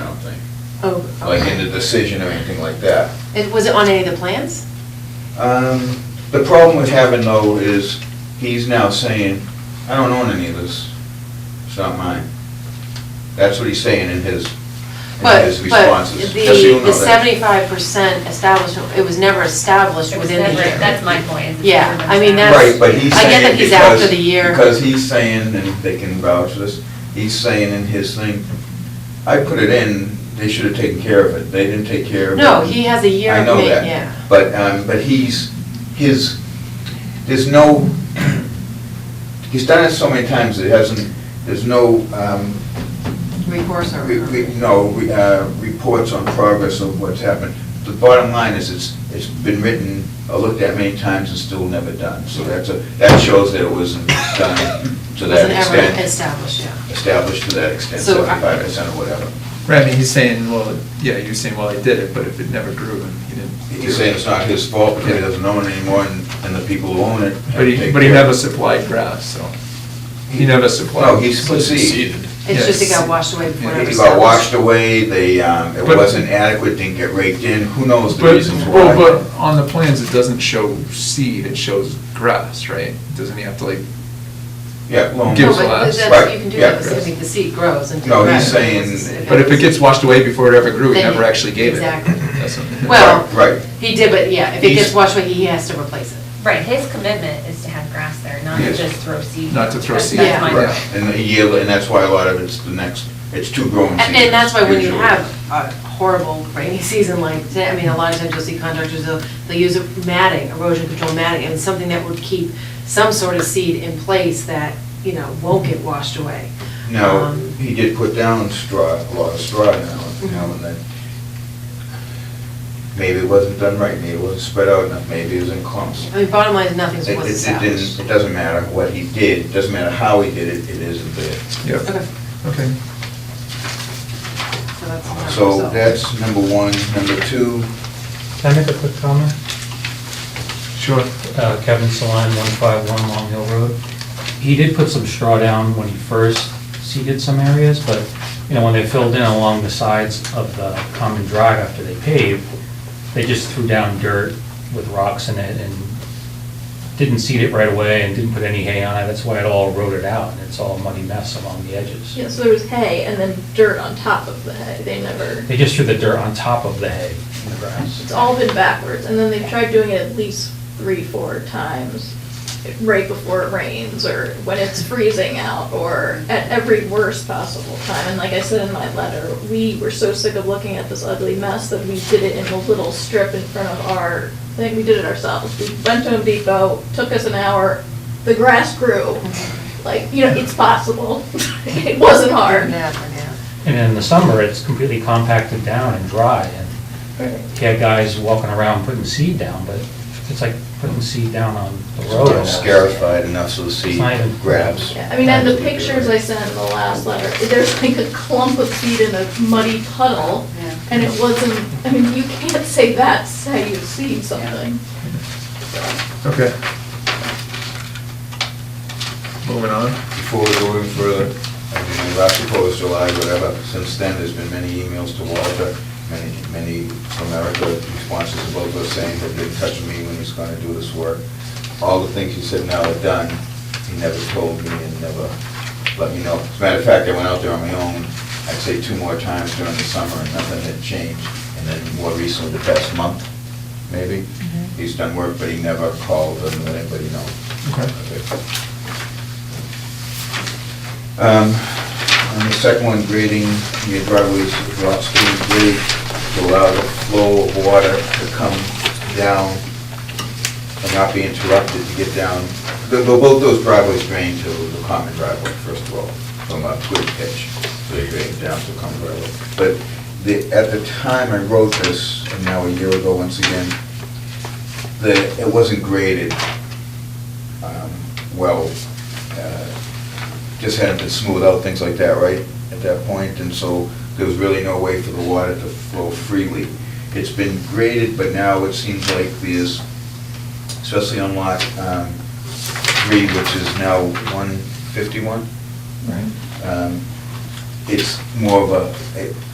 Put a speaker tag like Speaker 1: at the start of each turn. Speaker 1: Oh,
Speaker 2: like in the decision or anything like that.
Speaker 1: It, was it on any of the plans?
Speaker 2: Um, The problem with having though is he's now saying, I don't own any of this, it's not mine. That's what he's saying in his, in
Speaker 1: But,
Speaker 2: his
Speaker 1: but
Speaker 2: responses. Just so you
Speaker 1: the,
Speaker 2: know
Speaker 1: the
Speaker 2: that.
Speaker 1: seventy-five percent establishment, it was never established
Speaker 3: It was
Speaker 1: within the
Speaker 3: never-
Speaker 1: year.
Speaker 3: That's my point. it's
Speaker 1: Yeah,
Speaker 3: never
Speaker 1: I mean,
Speaker 3: established.
Speaker 2: Right,
Speaker 1: that's-
Speaker 2: but he's
Speaker 1: I get
Speaker 2: saying
Speaker 1: that he's after
Speaker 2: because-
Speaker 1: the year.
Speaker 2: Because he's saying, and they can vouch this, he's saying in his thing, I put it in, they should have taken care of it, they didn't take care of it.
Speaker 1: No, he has a year
Speaker 2: I
Speaker 1: of
Speaker 2: know
Speaker 1: ma-
Speaker 2: that.
Speaker 1: yeah.
Speaker 2: But, um, but he's, his, there's no, he's done it so many times, it hasn't, there's no, um,
Speaker 1: Recourse or?
Speaker 2: we, we, no, we, uh, reports on progress of what's happened. The bottom line is, it's, it's been written, or looked at many times and still never done. So that's a, that shows that it wasn't done to that
Speaker 1: Wasn't ever
Speaker 2: extent,
Speaker 1: established, yeah.
Speaker 2: established to that extent,
Speaker 1: So uh, I-
Speaker 2: seventy-five percent or whatever.
Speaker 4: Right, I mean, he's saying, well, yeah, you're saying, well, he did it, but if it never grew and he didn't.
Speaker 2: He's saying it's not his fault, because he doesn't own it anymore, and, and the people who own it. have
Speaker 4: But
Speaker 2: to
Speaker 4: he,
Speaker 2: take
Speaker 4: but he
Speaker 2: care of
Speaker 4: never
Speaker 2: it.
Speaker 4: supplied grass, so, he never supplied.
Speaker 2: No, he succeeded.
Speaker 1: It's just it
Speaker 4: Yes.
Speaker 1: got washed away before
Speaker 4: Yeah.
Speaker 1: it ever
Speaker 2: It
Speaker 1: established.
Speaker 2: got washed away, they, um, it
Speaker 4: But-
Speaker 2: wasn't adequate, didn't get raked in, who knows the
Speaker 4: But,
Speaker 2: reasons why.
Speaker 4: well, but on the plans, it doesn't show seed, it shows grass, right? Doesn't he have to like,
Speaker 2: Yeah, well.
Speaker 4: Gives
Speaker 1: No, but
Speaker 4: less.
Speaker 1: that's,
Speaker 2: Right,
Speaker 1: you can do
Speaker 2: yeah,
Speaker 1: that, because I
Speaker 4: yes.
Speaker 1: think the seed grows until.
Speaker 2: No,
Speaker 1: the
Speaker 2: he's
Speaker 1: ground grows.
Speaker 2: saying-
Speaker 4: but if it gets washed away before it ever grew, he
Speaker 1: Then
Speaker 4: never
Speaker 1: he-
Speaker 4: actually gave it.
Speaker 1: exactly.
Speaker 4: That's what-
Speaker 1: Well,
Speaker 2: Right, right.
Speaker 1: he did, but yeah, if it
Speaker 2: He's-
Speaker 1: gets washed away, he has to replace it.
Speaker 3: Right, his commitment is to have grass there, not to
Speaker 2: Yes.
Speaker 3: just throw seed.
Speaker 4: Not to throw
Speaker 3: That's-
Speaker 4: seed,
Speaker 3: that's my
Speaker 4: right.
Speaker 3: point.
Speaker 2: And a year, and that's why a lot of it's the next, it's two growing
Speaker 1: And,
Speaker 2: seasons.
Speaker 1: and that's why when you
Speaker 2: usually.
Speaker 1: have a horrible rainy season like today, I mean, a lot of times you'll see contractors, they'll, they'll use a matting, erosion control matting, and something that would keep some sort of seed in place that, you know, won't get washed away.
Speaker 2: Now,
Speaker 1: Um, Mhm.
Speaker 2: he did put down straw, a lot of straw now, and now and then. Maybe it wasn't done right, maybe it wasn't spread out enough, maybe it was in clumps.
Speaker 1: I mean, bottom line is nothing's
Speaker 2: It, it-
Speaker 1: was
Speaker 2: it didn't,
Speaker 1: established.
Speaker 2: it doesn't matter what he did, it doesn't matter how he did it, it isn't there.
Speaker 4: Yep.
Speaker 1: Okay,
Speaker 4: Okay.
Speaker 1: so that's. another
Speaker 2: So
Speaker 1: result.
Speaker 2: that's number one. Number two,
Speaker 5: Can I make a quick comment?
Speaker 4: Sure.
Speaker 5: Uh, Kevin Saline, 151 Long Hill Road. He did put some straw down when he first seeded some areas, but, you know, when they filled in along the sides of the common drive after they paved, they just threw down dirt with rocks in it and didn't seed it right away and didn't put any hay on it. That's why it all rotted out and it's all a muddy mess along the edges.
Speaker 6: Yeah, so there was hay and then dirt on top of the hay. They never,
Speaker 5: They just threw the dirt on top of the hay and the grass.
Speaker 6: it's all been backwards. And then they've tried doing it at least three, four times right before it rains or when it's freezing out or at every worst possible time. And like I said in my letter, we were so sick of looking at this ugly mess that we did it in a little strip in front of our, I think we did it ourselves. We went to Home Depot, took us an hour, the grass grew. Like, you know, it's possible. It wasn't hard.
Speaker 1: Yeah, yeah.
Speaker 5: And in the summer, it's completely compacted down and dry and He had guys walking around putting seed down, but it's like putting seed down on the road. almost.
Speaker 2: scarified enough so the seed
Speaker 5: It's not even-
Speaker 2: grabs.
Speaker 6: Yeah, I mean, and the pictures I sent in the last letter, there's like a clump of seed in a muddy puddle,
Speaker 1: Yeah.
Speaker 6: and it wasn't, I mean, you can't say that's how you seed something.
Speaker 4: Okay. Moving on.
Speaker 2: Before we go any further, I mean, last proposed July, whatever, since then, there's been many emails to Walter, many, many from Erica, responses to both of us saying that they touched me when he's gonna do this work. All the things he said now are done, he never told me and never let me know. As a matter of fact, I went out there on my own, I'd say two more times during the summer, and nothing had changed. And then more recently, the past month, maybe, he's done work, but he never called or let anybody know.
Speaker 4: Okay.
Speaker 2: Okay. Um, On the second one, grading your driveways, lots to grade to allow the flow of water to come down and not be interrupted to get down. Tho- tho- Both those driveways drain to the common driveway, first of all, from a twig pitch, so they drain down to the common driveway. But the, at the time I wrote this, and now a year ago, once again, the, it wasn't graded um, well, uh, just hadn't been smoothed out, things like that, right, at that point, and so there was really no way for the water to flow freely. It's been graded, but now it seems like there's, especially on lot um, three, which is now 151,
Speaker 4: Right.
Speaker 2: um, it's more of a, it-